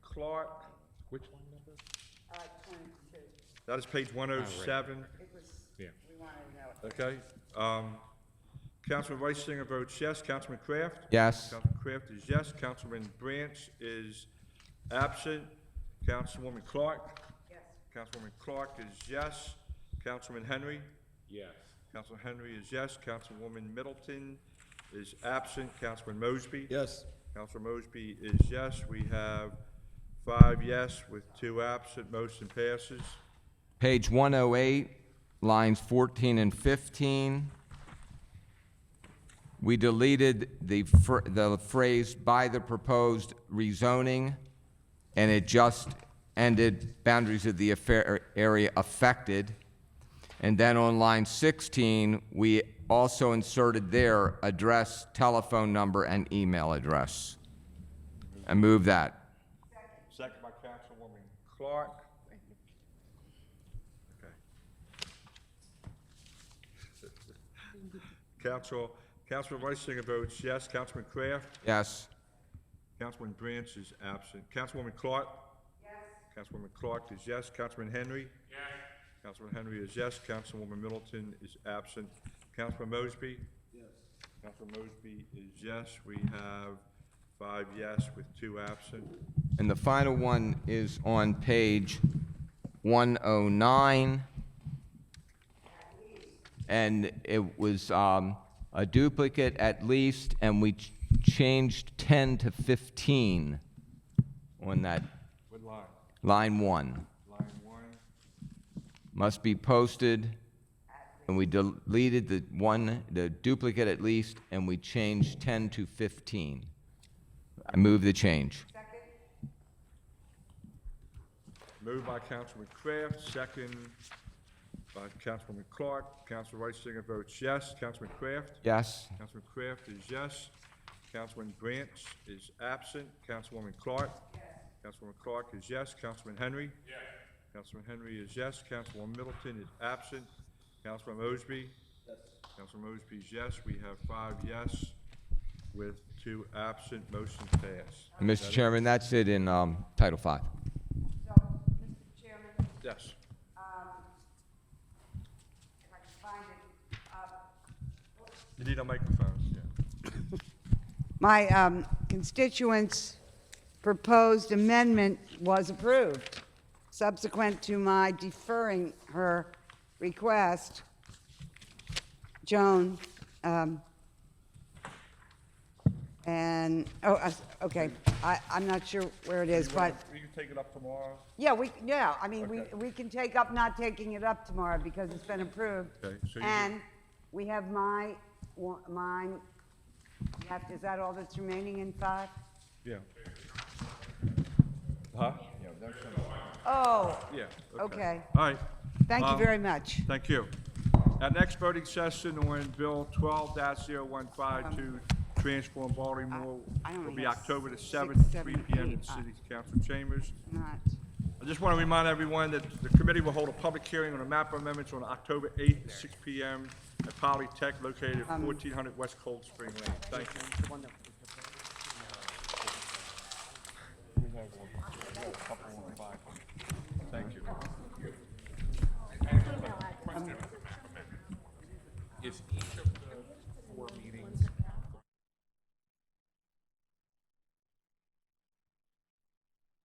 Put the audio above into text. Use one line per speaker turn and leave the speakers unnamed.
Clark, which one number?
Uh, twenty-two.
That is page one oh seven,
It was,
Yeah.
we wanted to know it.
okay? Um, Councilman Rice Singer votes yes. Councilman Kraft?
Yes.
Councilman Kraft is yes. Councilman Branch is absent. Councilwoman Clark?
Yes.
Councilwoman Clark is yes. Councilman Henry?
Yes.
Council Henry is yes. Councilwoman Middleton is absent. Councilman Mosby?
Yes.
Council Mosby is yes. We have five yes with two absent. Motion passes.
Page 108, lines 14 and 15. We deleted the fr- the phrase "by the proposed rezoning," and it just ended boundaries of the affair- area affected. And then on line 16, we also inserted there address, telephone number, and email address. I move that.
Second by Councilwoman Clark. Okay. Council, Councilman Reisinger votes yes. Councilman Kraft?
Yes.
Councilman Branch is absent. Councilwoman Clark? Yes. Councilwoman Clark is yes. Councilman Henry? Yes. Councilman Henry is yes. Councilwoman Middleton is absent. Councilman Mosby? Yes. Councilman Mosby is yes. We have five yes with two absent.
And the final one is on page 109. And it was um, a duplicate at least, and we ch- changed 10 to 15 on that
What line?
line one.
Line one?
Must be posted, and we deleted the one, the duplicate at least, and we changed 10 to 15. I move the change.
Moved by Councilman Kraft, second by Councilwoman Clark. Council Reisinger votes yes. Councilman Kraft?
Yes?
Councilman Kraft is yes. Councilman Branch is absent. Councilwoman Clark? Yes. Councilwoman Clark is yes. Councilman Henry? Yes. Councilman Henry is yes. Councilwoman Middleton is absent. Councilman Mosby? Yes. Councilman Mosby is yes. We have five yes with two absent. Motion passed.
Mr. Chairman, that's it in um, Title Five.
So, Mr. Chairman,
Yes.
um, if I can find it, uh,
You need a microphone, yeah.
My um, constituents' proposed amendment was approved. Subsequent to my deferring her request, Joan, um, and, oh, I- okay, I, I'm not sure where it is,
You wanna-
but,
You can take it up tomorrow?
yeah, we, yeah, I mean, we,
Okay.
we can take up not taking it up tomorrow because it's been approved.
Okay, so you-
And we have my, wa- mine, you have- is that all that's remaining in five?
Yeah. Huh? Yeah, that's,
Oh,
yeah.
Okay.
All right.
thank you
Um,
very much.
Thank you. Our next voting session on Bill twelve 152 transform Baltimore,
Um, I- I only
will be
have
October the
six,
seventh,
seven,
three P M.
eight. uh,
in City Council chambers.
Not,
I just want to remind everyone that the committee will hold a public hearing on the map amendments on October eighth,
Um,
six P M. at Polytech located at fourteen hundred West Cold Spring Lane. Thank you.
it's wonderful.